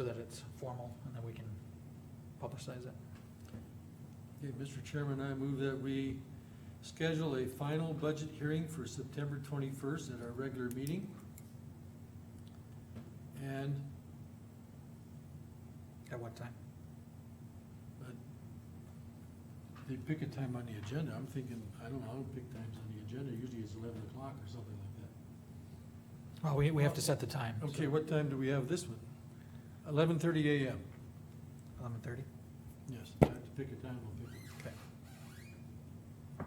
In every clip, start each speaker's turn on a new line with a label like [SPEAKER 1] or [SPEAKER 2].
[SPEAKER 1] so that it's formal and that we can publicize it.
[SPEAKER 2] Okay, Mr. Chairman, I move that we schedule a final budget hearing for September twenty-first at our regular meeting. And
[SPEAKER 1] At what time?
[SPEAKER 2] uh, they pick a time on the agenda, I'm thinking, I don't know, I don't pick times on the agenda, usually it's eleven o'clock or something like
[SPEAKER 1] Well, we, we have to set the time.
[SPEAKER 2] that. Okay, what time do we have this one? Eleven thirty AM,
[SPEAKER 1] Eleven thirty?
[SPEAKER 2] yes, I have to pick a time, I'll pick it.
[SPEAKER 1] Okay.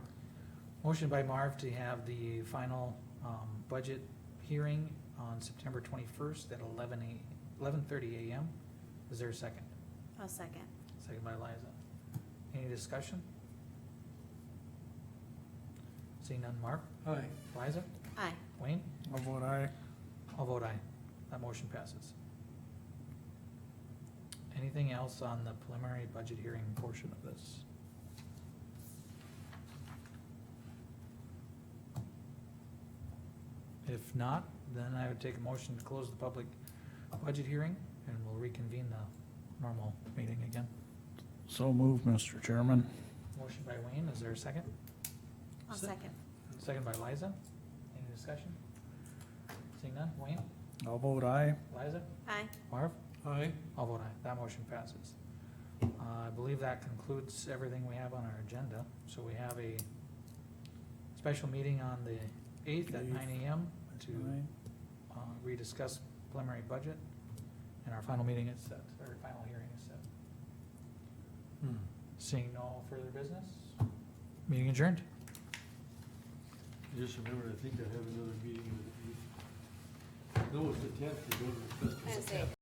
[SPEAKER 1] Motion by Marv to have the final, um, budget hearing on September twenty-first at eleven a, eleven thirty AM. Is there a second?
[SPEAKER 3] I'll second.
[SPEAKER 1] Second by Liza. Any discussion? Seeing none, Marv,
[SPEAKER 2] Hi,
[SPEAKER 1] Liza,
[SPEAKER 3] Aye.
[SPEAKER 1] Wayne,
[SPEAKER 4] I'll vote aye.
[SPEAKER 1] I'll vote aye. That motion passes. Anything else on the preliminary budget hearing portion of this? If not, then I would take a motion to close the public budget hearing and we'll reconvene the normal meeting again.
[SPEAKER 4] So move, Mr. Chairman.
[SPEAKER 1] Motion by Wayne, is there a second?
[SPEAKER 3] I'll
[SPEAKER 1] Se-
[SPEAKER 3] second.
[SPEAKER 1] Second by Liza. Any discussion? Seeing none, Wayne,
[SPEAKER 4] I'll vote aye.
[SPEAKER 1] Liza,
[SPEAKER 3] Aye.
[SPEAKER 1] Marv?
[SPEAKER 2] hi,
[SPEAKER 1] I'll vote aye, that motion passes. Uh, I believe that concludes everything we have on our agenda, so we have a special meeting on the eighth at
[SPEAKER 4] Eighth.
[SPEAKER 1] nine AM to, uh, rediscuss preliminary budget, and our final meeting is set, or final hearing is set.
[SPEAKER 2] hmm,
[SPEAKER 1] Seeing no further business, meeting adjourned.
[SPEAKER 2] I just remembered, I think I have another meeting with the, no, it's the tenth, we're going to the festival.